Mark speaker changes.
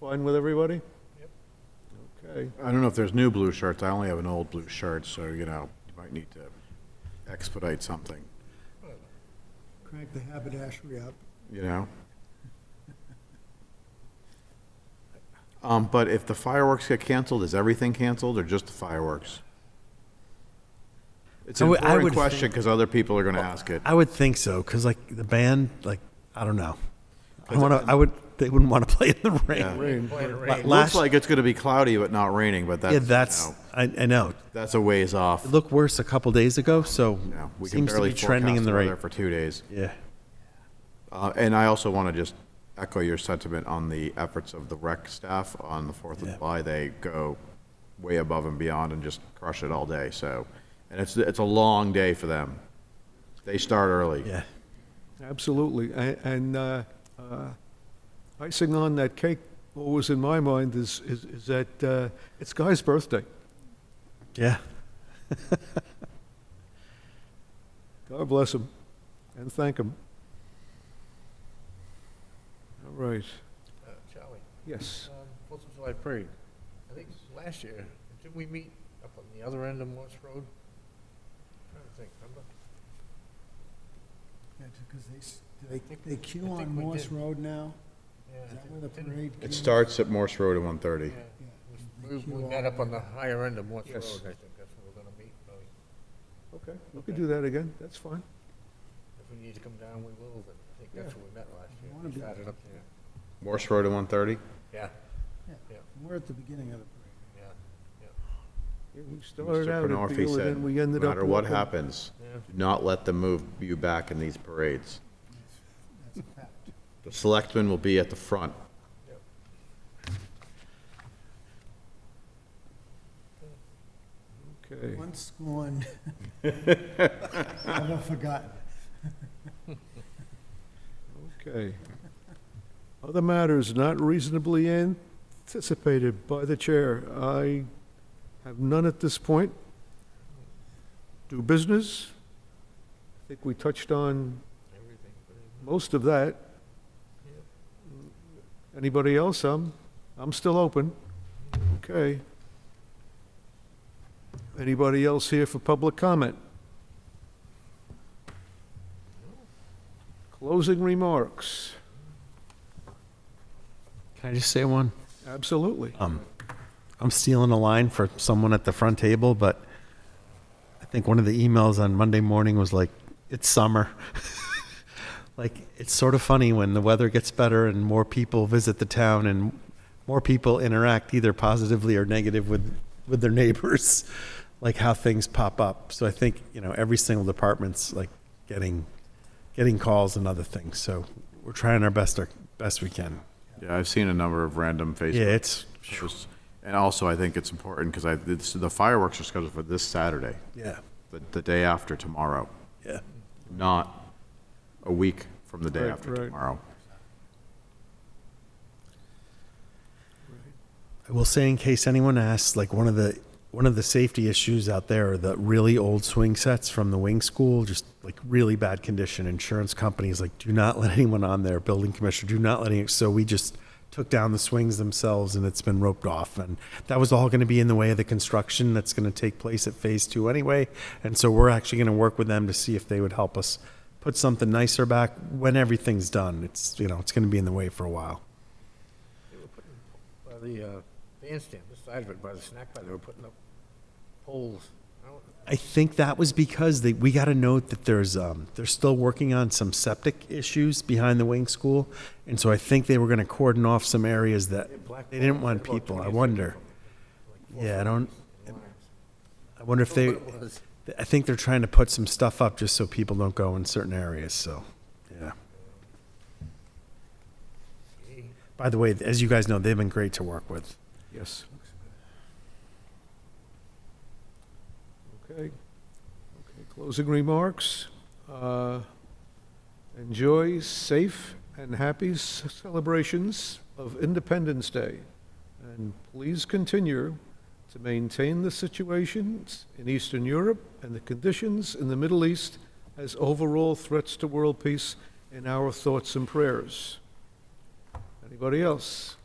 Speaker 1: Fine with everybody? Yep. Okay.
Speaker 2: I don't know if there's new blue shirts. I only have an old blue shirt, so, you know, you might need to expedite something,
Speaker 3: Crank the haberdashery up.
Speaker 2: you know? Um, but if the fireworks get canceled, is everything canceled or just the fireworks? It's
Speaker 4: I
Speaker 2: an
Speaker 4: would- I
Speaker 2: important
Speaker 4: would
Speaker 2: question
Speaker 4: think-
Speaker 2: because other people are going to ask it.
Speaker 4: I would think so, because like the band, like I don't know. I want to. I would. They wouldn't want to play in the rain.
Speaker 1: Rain.
Speaker 4: La-
Speaker 2: It
Speaker 4: Last,
Speaker 2: looks like it's going to be cloudy but not raining, but that's,
Speaker 4: yeah,
Speaker 2: you
Speaker 4: that's.
Speaker 2: know,
Speaker 4: I, I know.
Speaker 2: that's a ways off.
Speaker 4: It looked worse a couple days ago, so
Speaker 2: You know, we can
Speaker 4: seems to
Speaker 2: barely
Speaker 4: be trending
Speaker 2: forecast
Speaker 4: in the
Speaker 2: weather
Speaker 4: right.
Speaker 2: For two days.
Speaker 4: Yeah.
Speaker 2: Uh, And I also want to just echo your sentiment on the efforts of the rec staff on the Fourth of
Speaker 4: Yeah.
Speaker 2: July. They go way above and beyond and just crush it all day, so, and it's, it's a long day for them. They start early.
Speaker 4: Yeah.
Speaker 1: Absolutely. A- And uh, uh, icing on that cake, what was in my mind is, is is that uh, it's Guy's birthday.
Speaker 4: Yeah.
Speaker 1: God bless him and thank him. All right.
Speaker 5: Uh, Charlie,
Speaker 1: Yes.
Speaker 5: um, Fourth of July parade. I think last year, didn't we meet up on the other end of Morse Road? Trying to think, remember?
Speaker 3: Yeah, because they, s- do they, they
Speaker 5: I
Speaker 3: queue on
Speaker 5: think we
Speaker 3: Morse
Speaker 5: did.
Speaker 3: Road now?
Speaker 5: Yeah,
Speaker 3: Is that
Speaker 5: didn't-
Speaker 3: where the
Speaker 5: didn't-
Speaker 3: parade?
Speaker 2: It
Speaker 3: queue-
Speaker 2: starts at Morse Road at one thirty.
Speaker 5: yeah,
Speaker 3: Yeah,
Speaker 5: We,
Speaker 3: they
Speaker 5: we
Speaker 3: queue
Speaker 5: met
Speaker 3: all-
Speaker 5: up on the higher end of Morse Road, I
Speaker 1: Yes.
Speaker 5: think that's where we're gonna meet, probably.
Speaker 1: Okay. We could do that again. That's fine.
Speaker 5: If we need to come down, we will, but I think that's where we met last year.
Speaker 3: wanna
Speaker 5: We
Speaker 3: be-
Speaker 5: started up there.
Speaker 2: Morse Road at one thirty?
Speaker 5: Yeah,
Speaker 3: We're at the beginning of the
Speaker 5: yeah,
Speaker 3: parade.
Speaker 1: Yeah, We started
Speaker 2: Mr.
Speaker 1: out at
Speaker 2: Penorfi
Speaker 1: Beal and
Speaker 2: said,
Speaker 1: then we ended
Speaker 2: no
Speaker 1: up.
Speaker 2: matter what
Speaker 1: walking."
Speaker 2: happens,
Speaker 5: yeah.
Speaker 2: do not let them move you back in these parades.
Speaker 3: That's a fact.
Speaker 2: The selectmen will be at the front.
Speaker 1: Okay.
Speaker 3: Once scorned, never forgotten.
Speaker 1: Okay. Other matters not reasonably anticipated by the chair. I have none at this point. Do business? I think we touched on
Speaker 5: Everything, but it-
Speaker 1: most of that. Anybody else? I'm, I'm still open. Okay. Anybody else here for public comment? Closing remarks.
Speaker 4: Can I just say one?
Speaker 1: Absolutely.
Speaker 4: I'm stealing a line for someone at the front table, but I think one of the emails on Monday morning was like, "It's summer." like it's sort of funny when the weather gets better and more people visit the town and more people interact either positively or negative with with their neighbors, like how things pop up. So I think you know every single department's like getting getting calls and other things. So we're trying our best our best we can.
Speaker 2: Yeah, I've seen a number of random Facebook
Speaker 4: Yeah, it's
Speaker 2: posts. And also, I think it's important because I, this- the fireworks are scheduled for this Saturday,
Speaker 4: yeah
Speaker 2: the, the day after tomorrow,
Speaker 4: yeah.
Speaker 2: not a week from the day
Speaker 1: Right,
Speaker 2: after
Speaker 1: right.
Speaker 2: tomorrow.
Speaker 4: I will say, in case anyone asks, like one of the one of the safety issues out there are the really old swing sets from the wing school, just like really bad condition. Insurance companies like do not let anyone on there. Building commissioner, do not let any. So we just took down the swings themselves, and it's been roped off. And that was all going to be in the way of the construction that's going to take place at phase two anyway. And so we're actually going to work with them to see if they would help us put something nicer back when everything's done. It's you know it's going to be in the way for a while.
Speaker 5: They were putting by the, uh, bandstand, this side of it, by the snack bar, they were putting up poles. I don't,
Speaker 4: I think that was because they, we got a note that there's um, they're still working on some septic issues behind the wing school, and so I think they were going to cordon off some areas that
Speaker 5: black
Speaker 4: they didn't
Speaker 5: balls,
Speaker 4: want
Speaker 5: about
Speaker 4: people. I
Speaker 5: 26
Speaker 4: wonder.
Speaker 5: like four
Speaker 4: Yeah, I
Speaker 5: foot
Speaker 4: don't.
Speaker 5: lines.
Speaker 4: I wonder if they.
Speaker 5: What it was.
Speaker 4: I think they're trying to put some stuff up just so people don't go in certain areas. So, yeah. By the way, as you guys know, they've been great to work with.
Speaker 1: Yes. Okay. Okay, closing remarks. Uh, Enjoy safe and happy s- celebrations of Independence Day. And please continue to maintain the situations in Eastern Europe and the conditions in the Middle East as overall threats to world peace in our thoughts and prayers. Anybody else?